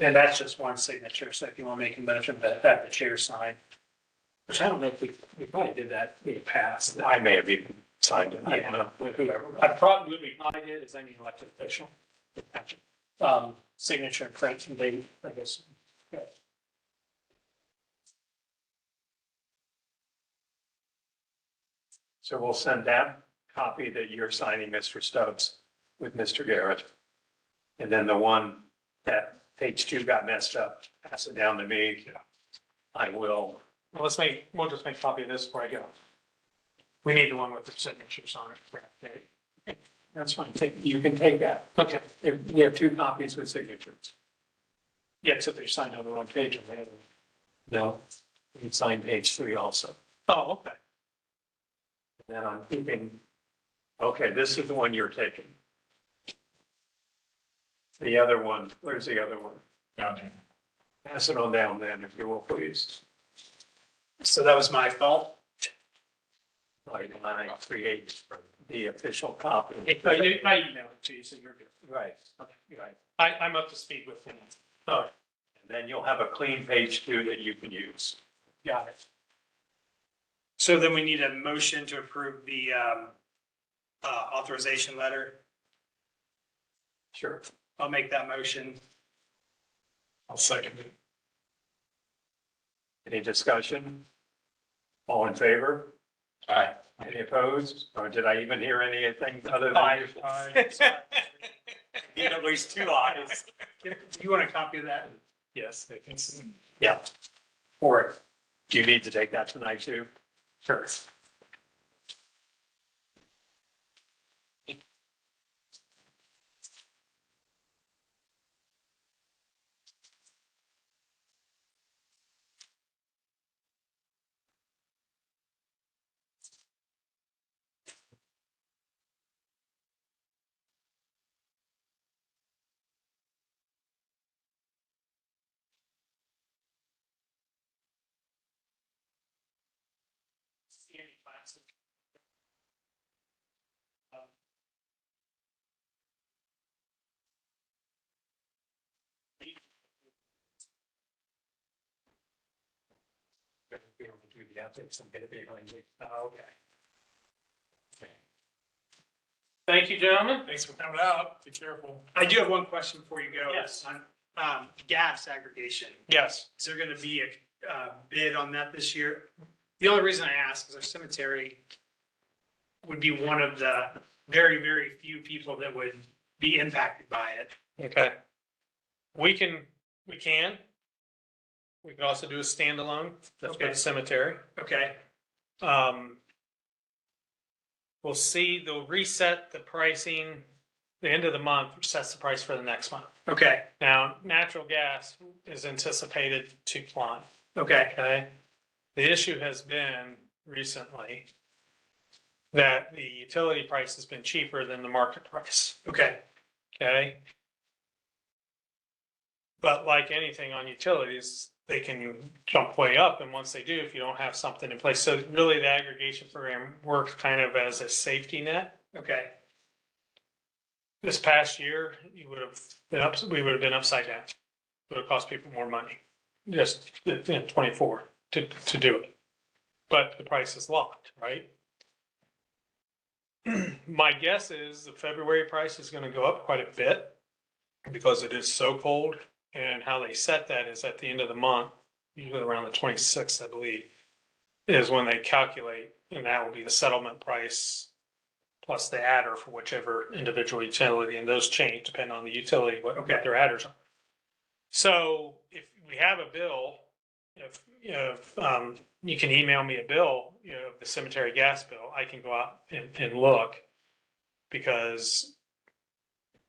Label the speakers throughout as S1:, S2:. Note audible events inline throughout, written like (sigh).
S1: And that's just one signature, so if you want to make a motion that, that the chair sign, which I don't know if we, we probably did that in the past.
S2: I may have even signed it. I don't
S1: Yeah,
S2: know.
S1: whoever, I probably, we probably did, is any elected official. Um, signature and print and they, I guess. yeah.
S2: So we'll send that copy that you're signing, Mr. Stubbs, with Mr. Garrett. And then the one that page two got messed up, pass it down to me. I will,
S1: Well, let's make, we'll just make a copy of this before I go. We need the one with the signatures on it.
S2: that's fine, take, you can take that.
S1: Okay,
S2: There- We have two copies with signatures.
S1: yeah, except they signed on the wrong page on the other. one.
S2: No, you can sign page three also.
S1: Oh, okay.
S2: And then I'm keeping, okay, this is the one you're taking. The other one, where's the other one? Pass it on down then, if you will, please.
S1: So that was my fault.
S2: Like line three eight, the official copy.
S1: I did- I emailed it to you, so you're good.
S2: Right, okay, right.
S1: I, I'm up to speed with things.
S2: All right. And then you'll have a clean page two that you can use.
S1: Got it.
S3: So then we need a motion to approve the um, uh, authorization letter.
S2: Sure.
S3: I'll make that motion.
S1: I'll second it.
S2: Any discussion? All in favor?
S4: Aye.
S2: Any opposed? Or did I even hear anything other
S1: Aye.
S2: than?
S3: (laughs)
S2: Need at least two ayes.
S3: Do you want a copy of that?
S1: Yes, they can see.
S2: Yeah.
S3: Or
S2: Do you need to take that tonight too?
S1: Sure.
S3: Um,
S2: Be able to do the ethics and get it behind you.
S1: Okay. Thank you, gentlemen. Thanks for coming out. Be careful.
S3: I do have one question before you go.
S1: Yes.
S3: On, um, Gas aggregation,
S1: Yes.
S3: is there going to be a uh, bid on that this year? The only reason I ask is our cemetery would be one of the very, very few people that would be impacted by it.
S1: Okay. We can, we can. We can also do a standalone, that's for the
S3: Okay.
S1: cemetery.
S3: Okay,
S1: Um. We'll see, they'll reset the pricing, the end of the month sets the price for the next month.
S3: okay,
S1: Now, natural gas is anticipated to climb,
S3: okay,
S1: okay? The issue has been recently that the utility price has been cheaper than the market price.
S3: okay.
S1: Okay. But like anything on utilities, they can jump way up, and once they do, if you don't have something in place, so really the aggregation program works kind of as a safety net.
S3: Okay,
S1: This past year, you would have been up, we would have been upside down. Would have cost people more money, just in twenty-four to, to do it. But the price is locked, right? (clears throat) My guess is the February price is gonna go up quite a bit because it is so cold. And how they set that is at the end of the month, usually around the twenty-sixth, I believe, is when they calculate, and that will be the settlement price plus the adder for whichever individual utility, and those change depending on the utility, what what
S3: Okay.
S1: their adders are. So if we have a bill, if, you know, if, um, you can email me a bill, you know, the cemetery gas bill, I can go out and, and look. Because,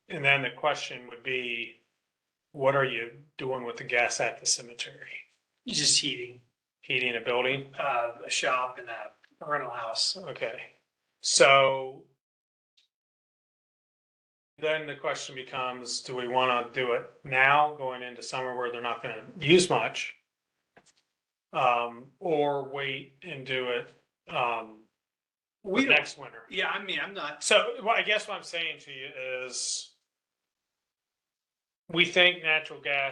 S1: and then the question would be, what are you doing with the gas at the cemetery?
S3: just heating.
S1: Heating a building?
S3: uh, a shop and a rental house.
S1: Okay, so then the question becomes, do we want to do it now going into summer where they're not going to use much? Um, or wait and do it, um,
S3: We don't,
S1: next winter?
S3: yeah, I mean, I'm not,
S1: So well, I guess what I'm saying to you is we think natural gas